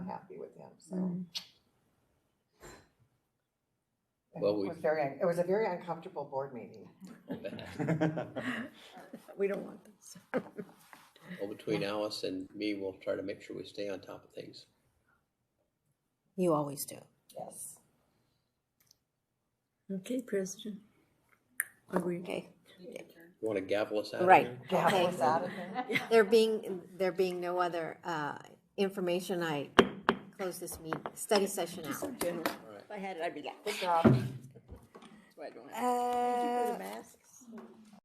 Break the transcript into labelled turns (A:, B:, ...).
A: happy with him, so.
B: Mm.
A: And
C: Well,
A: It
C: we-
A: was very, un- it was a very uncomfortable board meeting.
B: We don't want this.
C: Well, between Alice and me, we'll try to make sure we stay on top of things.
D: You always do.
A: Yes.
B: Okay, President. Are we,
D: Okay.
C: You Want to gavel us out? of
D: Right.
C: here?
A: Gavel
D: Okay.
A: was out of there.
D: There being, there being no other uh, information, I close this meeting, study session out.
B: general,
C: All right.
B: if I had it, I'd be like,
A: Good job.
B: that's why I don't have.
D: Uh,
B: mask?